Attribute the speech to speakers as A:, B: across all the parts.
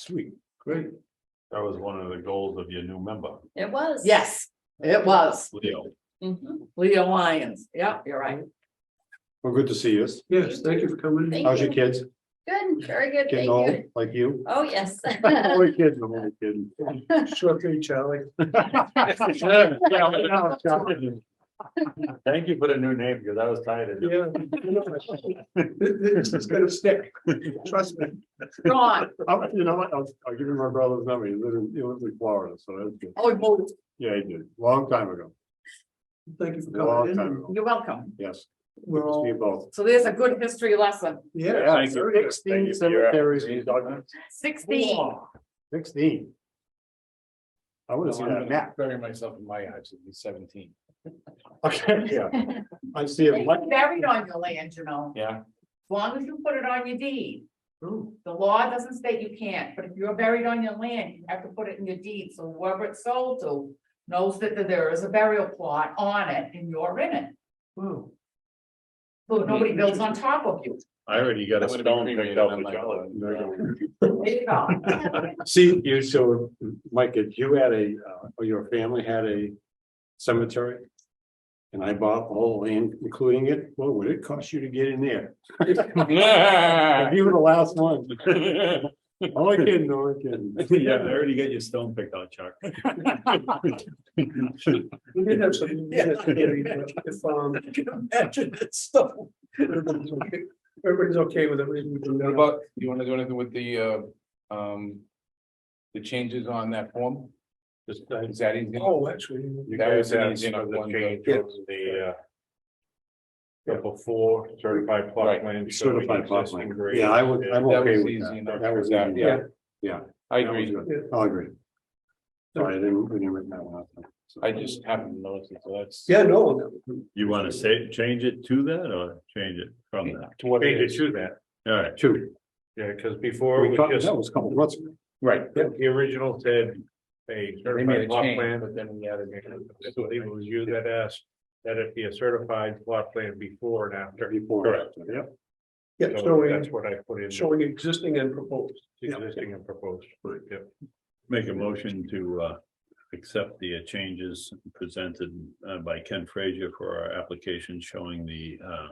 A: Sweet, great.
B: That was one of the goals of your new member,
C: It was.
D: Yes, it was
B: Leo.
E: Mm-hmm.
C: Mhm.
D: Leo Lyons. Yeah, you're right.
A: Well, good to see you.
E: Yes, thank you for coming. in.
C: Thank
A: How's your
C: you.
A: kids?
C: Good, very good, thank
A: Getting old,
C: you.
A: like you?
C: Oh, yes.
A: I'm only kidding, I'm only kidding.
E: Short for you, Charlie.
B: Thank you for the new name, because I was tired of it.
E: Yeah. This is gonna stick, trust me.
D: Ron,
A: I'll- You know what, I'll, I'll give you my brother's number, he lives in, he lives in Florida, so that's good.
D: oh, well,
A: Yeah, he did, long time ago,
E: Thank you for
A: long
E: coming
A: time
E: in.
A: ago,
D: you're welcome.
A: yes,
E: We're
A: it's me
E: all,
A: both.
D: So there's a good history lesson.
E: yeah,
A: thank you. Thank Sixteen
B: you for your
A: cemeteries,
B: efforts.
D: Sixteen.
A: sixteen. I would have seen that map.
B: Bury myself in my eyes, it'd be seventeen.
A: Okay, yeah. I see it,
D: It's Buried on your land, you know,
B: Yeah,
D: as long as you put it on your deed.
E: Oh,
D: The law doesn't state you can't, but if you're buried on your land, you have to put it in your deed, so whoever it's sold to knows that there is a burial plot on it and you're in it.
E: wow.
D: So
E: Mm-hmm.
D: nobody builds on top of you.
B: I already got a
F: That would've been
B: stone picked
F: cremated,
B: out
F: I'm
B: with
F: like,
B: Charlie.
D: There you go.
A: see, you, so, Mike, if you had a, uh, or your family had a cemetery. And I bought all land, including it, what would it cost you to get in there? If you were the last one, only kidding, only kidding.
B: Yeah, I already got your stone picked out, Chuck.
E: We did have some. If, um,
B: Imagine that stuff.
E: everybody's okay with it. we can do
F: What
E: that.
F: about, you wanna do anything with the, uh, um, the changes on that form?
B: Just, uh,
F: Is that easy?
E: Oh, actually,
B: You
F: That
B: guys
F: was an
B: asked
F: easy
B: for
F: enough
B: the
F: one,
B: change
F: though.
B: of the, uh. Couple four certified plot
F: Right.
B: plan.
A: Certified plot plan. Yeah, I would, I'm
F: That
A: okay
F: was
A: with
F: easy
A: that.
F: enough.
A: That was,
F: Yeah,
A: easy.
F: yeah.
A: yeah.
F: I
A: That was
F: agree,
A: good. I'll agree. Sorry, I didn't, we didn't write that one up.
F: I just haven't noticed, it, so that's.
E: yeah, no,
B: You wanna say, change it to that or change it from that?
F: To what it
B: Change it
F: is,
B: to that, all right,
A: Two,
B: yeah, cause before
A: We
B: it
A: talked-
B: was
A: that
B: just,
A: was a couple of months ago.
F: right,
B: the the original said. A
F: they made
B: certified
F: a
B: plot
F: change,
B: plan,
F: but then we added.
B: I believe it was you that asked, that it be a certified plot plan before and after.
A: Before.
B: Correct.
A: Yep.
E: yeah,
B: So that's
E: showing,
B: what I put in.
E: showing existing and proposed.
B: Existing and proposed, yeah. Make a motion to uh accept the uh, changes presented uh by Ken Frazier for our application showing the uh.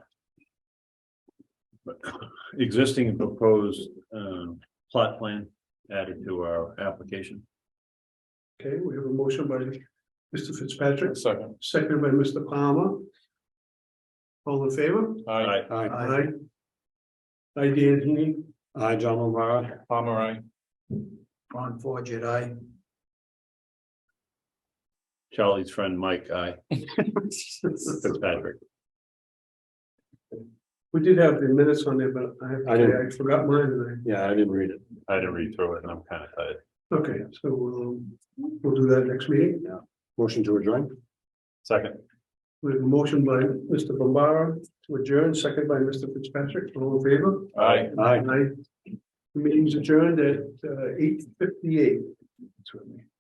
B: Existing and proposed um plot plan added to our application.
E: Okay, we have a motion by Mr. Fitzpatrick,
F: Second,
E: second by Mr. Palmer. All in favor?
F: I,
A: Hi,
E: Aye. I, Dan Heaney.
A: hi, John O'Mara.
F: Palmer, I,
E: Ron Forget, aye.
B: Charlie's friend Mike, I, Fitzpatrick.
E: We did have the minutes on there, but I have,
A: I
E: to
A: didn't-
E: say I forgot mine and
A: Yeah, I didn't read it.
B: I didn't read through it and I'm kind of tired.
E: I, okay, so we'll, we'll do that next meeting.
A: Motion to adjourn.
B: Second,
E: We have a motion by Mr. Bombara to adjourn, second by Mr. Fitzpatrick, all in favor?
F: I.
A: Aye.
E: uh, Aye. Meeting's adjourned at eight fifty-eight.